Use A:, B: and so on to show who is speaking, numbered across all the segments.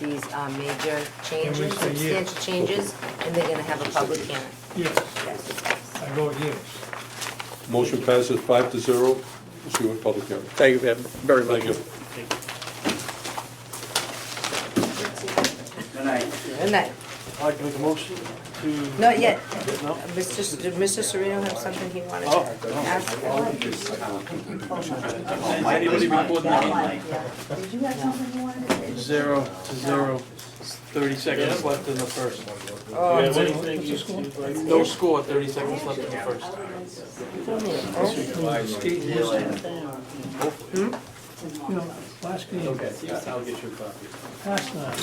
A: these uh, major
B: we
A: changes,
B: say yes?
A: substantial changes, and they're gonna have a public hearing.
B: Yes,
A: Yes.
B: I vote yes.
C: Motion passes five to zero. We'll see you at public hearing.
D: Thank you very much.
C: Thank you.
E: Good night.
A: Good night.
F: I'd like to make a motion to.
A: Not yet.
F: No?
A: Mr. S- Did Mr. Serino have something he wanted
F: Oh,
A: to ask?
E: Anybody reporting
G: Did you have something you wanted to say?
F: Zero to zero, thirty seconds left in the first.
A: Oh,
F: No score, thirty seconds left in the first.
B: State listed. You know, last game. I'll get you a copy. Last night.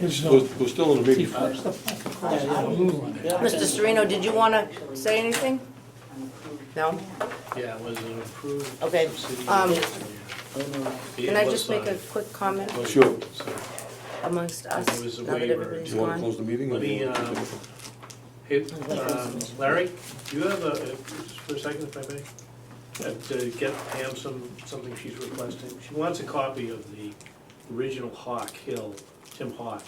B: There's
C: We're,
B: no,
C: we're still in a
B: he
C: meeting.
H: uh,
B: flips the fucking cross the blue one.
A: Mr. Serino, did you wanna say anything? No?
H: Yeah, it was an approved.
A: Okay,
H: subsidiary
A: um,
H: engineer.
A: Can I just make a quick comment
C: Sure.
H: So,
A: amongst
H: It
A: us,
H: was a
A: now that
H: waiver.
C: Do
A: everybody's
C: you want to
A: gone?
C: close the meeting? or
H: Let
C: do you
H: me,
C: want to-
H: um, hey, um, Larry, do you have a, uh, just for a second if I may? Uh, To get Pam some, something she's requesting. She wants a copy of the original Hawk Hill, Tim Hawk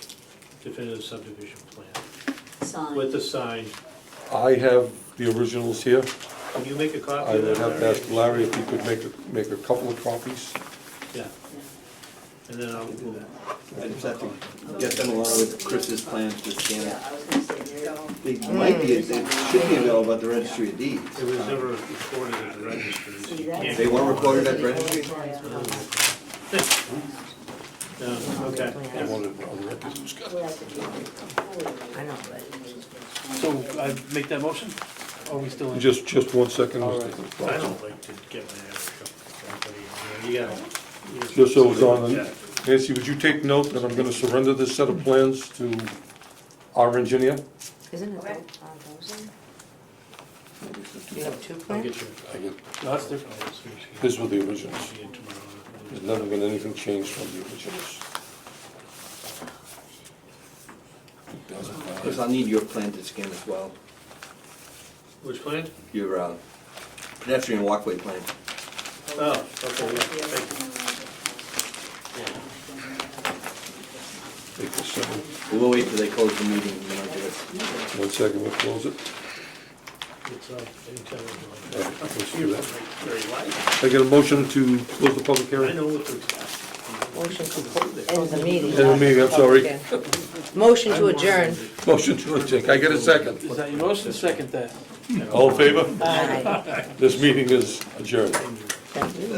H: definitive subdivision plan with
G: Sign.
H: the sign.
C: I have the originals here.
H: Can you make a
C: I
H: copy of
C: would
H: that,
C: have to
H: Larry?
C: ask Larry if he could make, a- make a couple of copies.
H: Yeah, and then I'll do that.
E: I just have to get them along with Chris's plans to scan
G: Yeah,
E: it.
G: I was gonna say, there you go.
E: They might be, they should be available at the registry of deeds.
H: It was never recorded at the registry, so you can't.
E: They weren't recorded at the registry?
H: No, okay.
C: I wanted on record.
A: I know, but.
F: So I make that motion? Are we still in?
C: Just, just one second.
F: All
C: Mr.
H: I
C: Fox.
H: don't like to get my ass shook. by anybody, You know, you gotta-
C: Just so it's on,
H: Yeah.
C: Nancy, would you take note that I'm gonna surrender this set of plans to our engineer?
A: Isn't it
G: Okay.
A: tho- uh, those in? You have two
H: I'll
A: plans?
H: get you.
C: I get-
F: No, that's different.
C: These were the originals.
H: See you tomorrow.
C: There's never been anything changed from the originals.
E: Chris, I'll need your plan to scan as well,
H: Which plan?
E: your uh, pedestrian walkway plan.
H: Oh, okay, yeah, thank
C: Take this second.
E: We'll wait till they close the meeting and then I'll do it.
C: One second, we'll close it.
H: you. It's, uh,
C: All
H: intelligent.
C: right, let's do that.
H: Very light.
C: I get a motion to close the public
H: I
C: hearing?
H: know what to expect.
A: Motion to end the meeting.
C: End the meeting, I'm sorry.
A: Motion to adjourn.
C: Motion to adjourn, Can I get a second.
F: Is that your motion? Second that.
C: All in favor?
A: Aye.
C: This meeting is adjourned.
A: Thank you.